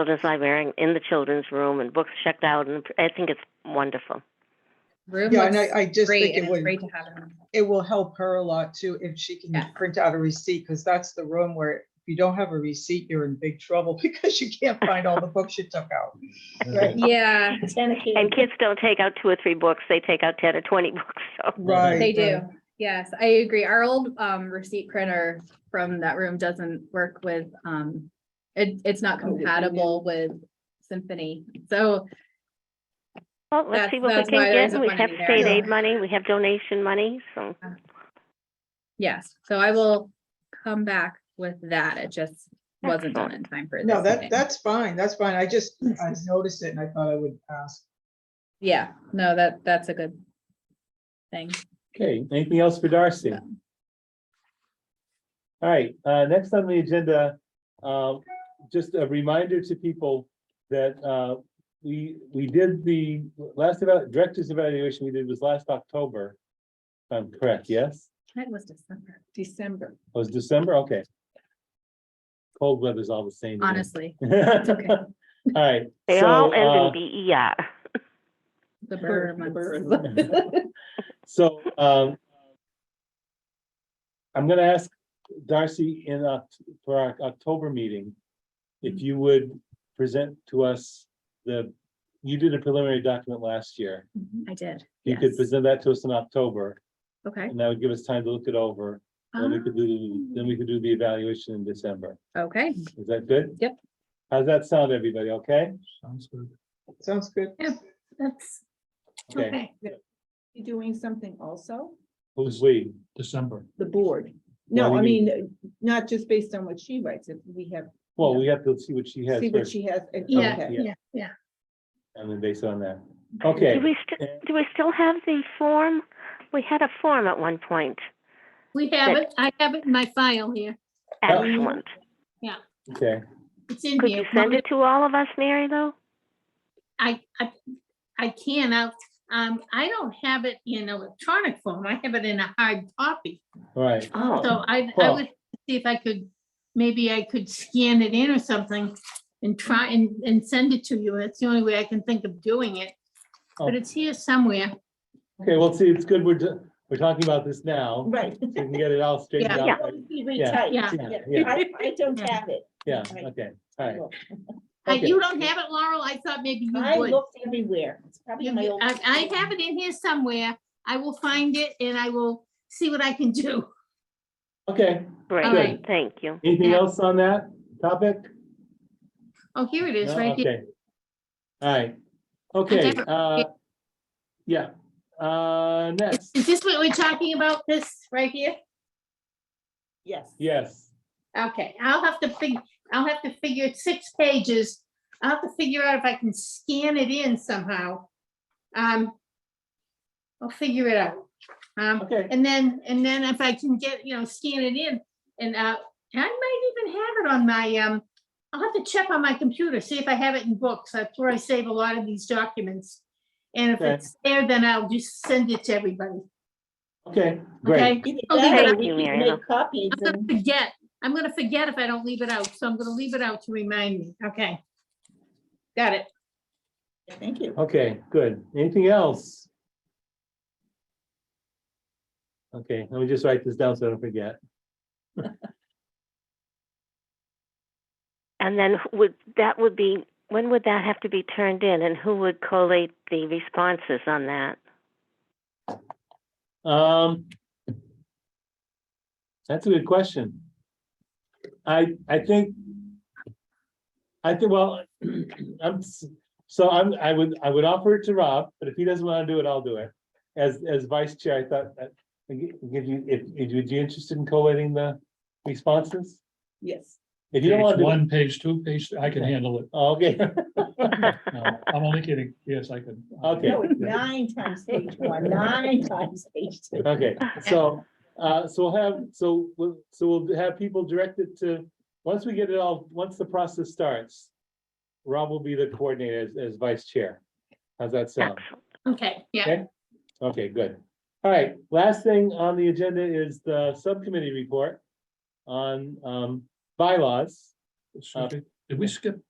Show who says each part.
Speaker 1: children's librarian in the children's room and books checked out, and I think it's wonderful.
Speaker 2: Room
Speaker 3: Yeah, and I,
Speaker 2: looks
Speaker 3: I just
Speaker 2: great
Speaker 3: think
Speaker 2: and
Speaker 3: it
Speaker 2: it's
Speaker 3: would,
Speaker 2: great to have it.
Speaker 3: it will help her a lot too, if she
Speaker 2: Yeah.
Speaker 3: can print out a receipt, because that's the room where if you don't have a receipt, you're in big trouble because you can't find all the books you took out. Right,
Speaker 2: Yeah,
Speaker 1: And kids don't take out two or three books; they take out ten or twenty books. So
Speaker 3: right.
Speaker 2: they do.
Speaker 3: right.
Speaker 2: Yes, I agree. Our old um receipt printer from that room doesn't work with um, it, it's not
Speaker 3: Oh, it-
Speaker 2: compatible with Symphony. So
Speaker 1: well, let's
Speaker 2: That's-
Speaker 1: see what we
Speaker 2: that's why
Speaker 1: can
Speaker 2: there
Speaker 1: get.
Speaker 2: isn't
Speaker 1: We
Speaker 2: money
Speaker 1: have
Speaker 2: there.
Speaker 1: state aid
Speaker 2: Yeah.
Speaker 1: money, we have donation money, so
Speaker 2: yes, so I will come back with that. It just wasn't done in time for this.
Speaker 3: No, that,
Speaker 2: meeting.
Speaker 3: that's fine, that's fine. I just, I noticed it and I thought I would ask.
Speaker 2: Yeah, no, that, that's a good thing.
Speaker 4: Okay, anything else for Darcy?
Speaker 2: No.
Speaker 4: All right, uh, next on the agenda, uh, just a reminder to people that, uh, we, we did the last about, director's evaluation we did was last October. if I'm correct, yes?
Speaker 2: That was December,
Speaker 5: December.
Speaker 4: It was December, okay. Cold weather's all the same. to me.
Speaker 2: honestly. okay.
Speaker 4: All right.
Speaker 1: they
Speaker 4: so,
Speaker 1: all
Speaker 4: uh,
Speaker 1: end in B E R.
Speaker 2: The
Speaker 5: Burr-
Speaker 2: bird
Speaker 5: the
Speaker 2: months.
Speaker 4: So, um. I'm gonna ask Darcy in, Oc- for our October meeting.
Speaker 5: Mm-hmm.
Speaker 4: If you would present to us the, you did a preliminary document last year.
Speaker 2: I did.
Speaker 4: You could
Speaker 2: yes.
Speaker 4: present that to us in October,
Speaker 2: Okay. Um,
Speaker 4: and that would give us time to look it over, and we could do,
Speaker 5: Ah.
Speaker 4: then we could do the evaluation in December.
Speaker 2: Okay,
Speaker 4: Is that good?
Speaker 2: Yep.
Speaker 4: How's that sound, everybody? Okay?
Speaker 6: Sounds good.
Speaker 3: Sounds good.
Speaker 5: That's
Speaker 4: Okay.
Speaker 5: You doing something also?
Speaker 4: Who's we?
Speaker 6: December.
Speaker 5: The board.
Speaker 4: Yeah,
Speaker 5: No,
Speaker 4: we
Speaker 5: I mean, not just based on what she writes, if we have,
Speaker 4: Well, we have to see what she has
Speaker 5: see what
Speaker 4: first,
Speaker 5: she has. and-
Speaker 4: Yeah.
Speaker 5: okay.
Speaker 4: Yeah. and then based on that. Okay.
Speaker 1: Do we still
Speaker 4: And-
Speaker 1: do we still have the form? We had a form at one point.
Speaker 7: We have it. I have it in my file here.
Speaker 4: Yeah.
Speaker 1: Excellent.
Speaker 4: Okay.
Speaker 7: It's in
Speaker 1: Could you
Speaker 7: here.
Speaker 1: send it to all of us, Mary? Though
Speaker 7: I, I, I can. I, um, I don't have it in electronic form. I have it in a hard copy.
Speaker 4: All right,
Speaker 1: oh.
Speaker 7: So I, I
Speaker 4: Well-
Speaker 7: would see if I could, maybe I could scan it in or something and try and, and send it to you. That's the only way I can think of doing it. But
Speaker 4: Oh.
Speaker 7: it's here somewhere.
Speaker 4: okay, well, see, it's good, we're, ju- we're talking about this now,
Speaker 8: Right.
Speaker 4: so we can get it all straightened
Speaker 7: Yeah.
Speaker 4: out.
Speaker 8: That would be really tight.
Speaker 7: Yeah.
Speaker 4: Yeah, yeah,
Speaker 8: I, I don't have it.
Speaker 4: yeah, okay, all right.
Speaker 7: Uh,
Speaker 4: Okay.
Speaker 7: You don't have it, Laurel? I thought maybe you
Speaker 8: I
Speaker 7: would.
Speaker 8: looked everywhere. It's probably
Speaker 7: You-
Speaker 8: in my
Speaker 7: you-
Speaker 8: old.
Speaker 7: I, I have it in here somewhere. I will find it and I will see what I can do.
Speaker 4: Okay,
Speaker 1: Great.
Speaker 2: um,
Speaker 7: Good.
Speaker 1: Thank you.
Speaker 4: anything
Speaker 7: Yeah.
Speaker 4: else on that topic?
Speaker 7: Oh, here it is,
Speaker 4: No?
Speaker 7: right here.
Speaker 4: Okay. All right, okay,
Speaker 7: never-
Speaker 4: uh, yeah, uh, next,
Speaker 7: Is this what we're talking about, this right here?
Speaker 8: Yes.
Speaker 4: yes,
Speaker 7: Okay, I'll have to fig, I'll have to figure it's six pages. I'll have to figure out if I can scan it in somehow. Um, I'll figure it out. Um,
Speaker 4: okay,
Speaker 7: and then, and then if I can get, you know, scan it in and, uh, I might even have it on my, um, I'll have to check on my computer, see if I have it in books. That's where I save a lot of these documents. And if
Speaker 4: Okay.
Speaker 7: it's there, then I'll just send it to everybody.
Speaker 4: okay,
Speaker 7: Okay?
Speaker 4: great,
Speaker 8: Either
Speaker 7: Okay,
Speaker 8: that or
Speaker 1: thank
Speaker 8: we
Speaker 1: you,
Speaker 8: could
Speaker 1: Mary Ellen.
Speaker 8: make copies
Speaker 7: I'm gonna
Speaker 8: and
Speaker 7: forget, I'm gonna forget if I don't leave it out, so I'm gonna leave it out to remind me, okay? Got it.
Speaker 8: thank you.
Speaker 4: okay, good, anything else? Okay, let me just write this down so I don't forget.
Speaker 1: And then who would, that would be, when would that have to be turned in and who would collate the responses on that?
Speaker 4: Um. That's a good question. I, I think. I think, well, I'm, s- so I'm, I would, I would offer it to Rob, but if he doesn't want to do it, I'll do it. As, as vice chair, I thought, that- I gi- give you, if, if you'd be interested in collating the responses?
Speaker 5: Yes.
Speaker 4: If you don't want
Speaker 6: Page
Speaker 4: to, do it- oh,
Speaker 6: one, page two, page, three, I can handle it.
Speaker 4: okay,
Speaker 6: No, I'm only kidding. Yes, I can.
Speaker 4: Okay.
Speaker 8: No, it's nine times page one, nine times page two.
Speaker 4: okay, so, uh, so we'll have, so, we'll so we'll have people directed to, once we get it all, once the process starts. Rob will be the coordinator as, as vice chair. How's that sound?
Speaker 1: Excellent.
Speaker 7: Okay, yeah,
Speaker 4: Okay. Okay, good. All right, last thing on the agenda is the subcommittee report on, um, bylaws.
Speaker 6: Excuse me, Did we skip